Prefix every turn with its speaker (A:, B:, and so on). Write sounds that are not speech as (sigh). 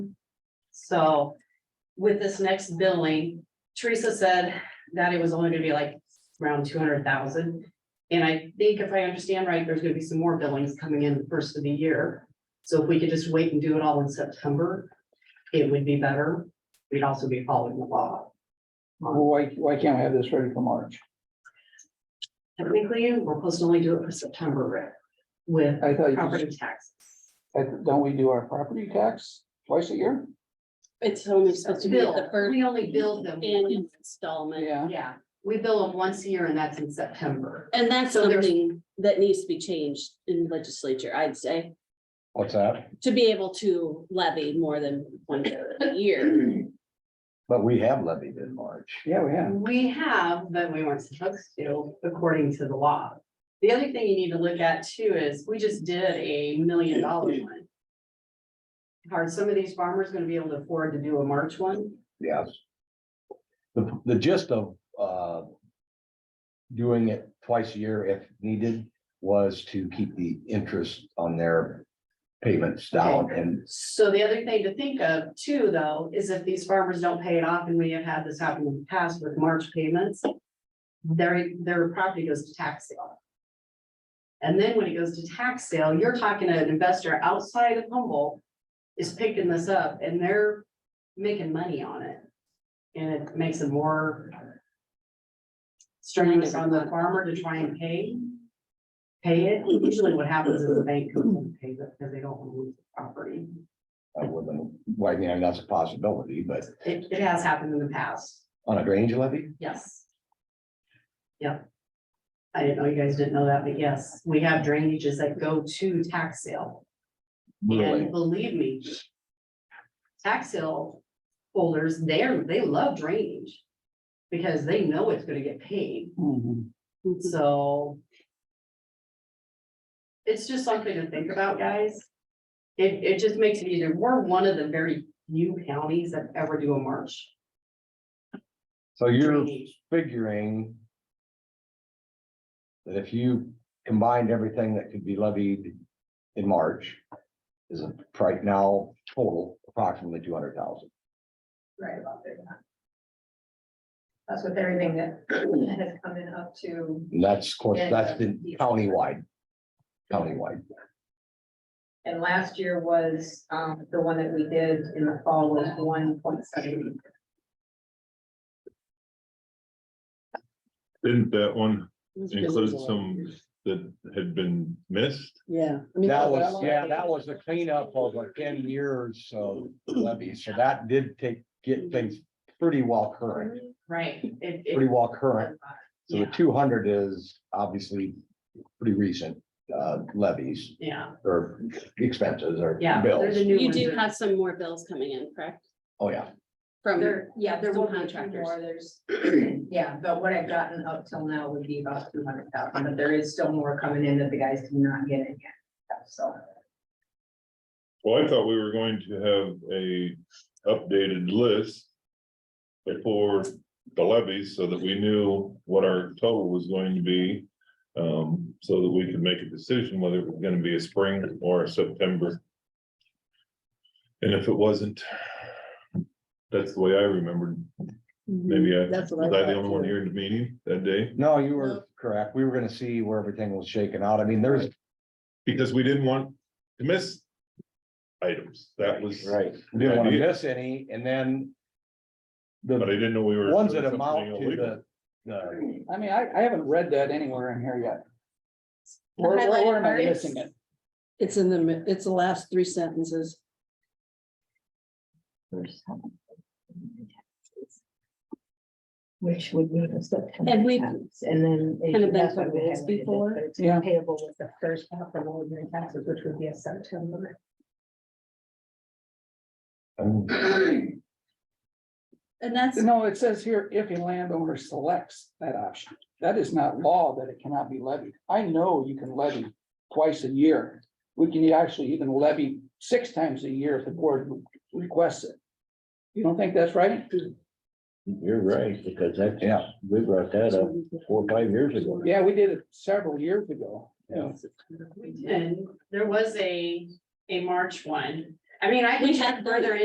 A: So with this next billing, Teresa said that it was only gonna be like around two hundred thousand. And I think if I understand right, there's gonna be some more billings coming in the first of the year. So if we could just wait and do it all in September, it would be better. We'd also be following the law.
B: Well, Why, why can't we have this ready for March?
A: Technically, we're supposed to only do it for September, Rick, with
B: I thought, you
A: property
B: just-
A: taxes.
B: I- don't we do our property tax twice a year?
C: It's only supposed to be at the
A: Bill,
C: first
A: we only build them,
C: annual installment.
B: Yeah,
A: yeah, we bill them once a year and that's in September.
C: And that's
A: So there's-
C: something that needs to be changed in legislature, I'd say,
D: What's that?
C: to be able to levy more than one bill a year.
D: But we have levied in March.
B: yeah, we have.
A: We have, but we weren't supposed to, according to the law. The other thing you need to look at too is, we just did a million dollar one. Are some of these farmers gonna be able to afford to do a March one?
D: Yes. The, the gist of, uh. Doing it twice a year if needed was to keep the interest on their payments down and
A: So the other thing to think of too, though, is if these farmers don't pay it off, and we have had this happen in the past with March payments. Their, their property goes to tax sale. And then when it goes to tax sale, you're talking to an investor outside of Humboldt is picking this up and they're making money on it. And it makes it more strenuous on the farmer to try and pay. Pay it. Usually what happens is the bank comes and pays it because they don't want to lose the property.
D: I wouldn't, well, I mean, that's a possibility, but
A: It, it has happened in the past,
D: on a drainage levy,
A: yes. Yep. I didn't know you guys didn't know that, but yes, we have drainages that go to tax sale,
D: really,
A: and believe me. Tax sale holders, they're, they love drainage. Because they know it's gonna get paid,
B: Mhm.
A: so. It's just something to think about, guys. It, it just makes it easier, we're one of the very few counties that ever do a march.
D: so you're
A: drainage.
D: figuring. That if you combined everything that could be levied in March. Is a- right now total approximately two hundred thousand.
E: right about there. That's with everything that (clears throat) has come in up to,
D: And that's, of course,
E: Yeah,
D: that's
E: yeah.
D: been countywide. Countywide,
E: and last year was, um, the one that we did in the fall was one point seven.
F: Didn't that one include some that had been missed?
C: Yeah.
D: that was, yeah, that was a cleanup of like ten years
A: (clears throat)
D: of levy, so that did take, get things pretty well current,
A: Right, Mm. it,
D: pretty
A: it.
D: well current. So the
A: Yeah.
D: two hundred is obviously pretty recent, uh, levies
A: Yeah,
D: or expenses or
A: yeah. there's a
D: bills.
A: new
C: You
A: one
C: do
A: that-
C: have some more bills coming in, correct?
D: Oh, yeah,
C: From,
E: There, yeah, there
C: Some
E: will be two
C: contractors.
E: more, there's, (clears throat) yeah, but what I've gotten up till now would be about two hundred thousand, but there is still more coming in that the guys do not get in yet, so.
F: Well, I thought we were going to have a updated list. Before the levies, so that we knew what our total was going to be. Um, so that we could make a decision whether it was gonna be a spring or a September. And if it wasn't. That's the way I remembered. Maybe I,
C: That's
F: was
C: what I
F: I the
C: thought
F: only one
C: too.
F: here in the meeting that day?
D: no, you were correct. We were gonna see where everything was shaken out. I mean, there's.
F: because we didn't want to miss items. That was, but
D: Right, we didn't wanna
F: Idea.
D: miss any, and then.
F: I
D: The
F: didn't know we were.
D: ones that
F: doing something
D: amount to
F: illegal.
D: the, the,
B: I mean, I, I haven't read that anywhere in here yet. Where, where
C: highlighted
B: where am I
C: part is-
B: missing it?
C: It's in the, mi- it's the last three sentences.
G: Which would mean it's September
C: And we-
G: tax, and then. it-
C: Kind of been
G: that's
C: through
G: what we
C: this
G: highlighted it,
C: before.
G: but it's
B: Yeah.
G: Payable with the first half of ordinary taxes, which would be a September.
D: um,
C: And that's,
B: No, it says here, if a landowner selects that option, that is not law that it cannot be levied. I know you can levy twice a year. We can actually even levy six times a year if the board requests it. You don't think that's right?
H: You're right, because that's,
D: Yeah.
H: we brought that up four, or five years ago.
B: Yeah, we did it several years ago.
D: Yeah.
A: We did, there was a, a March one. I mean, I
C: We
A: can
C: had
A: check further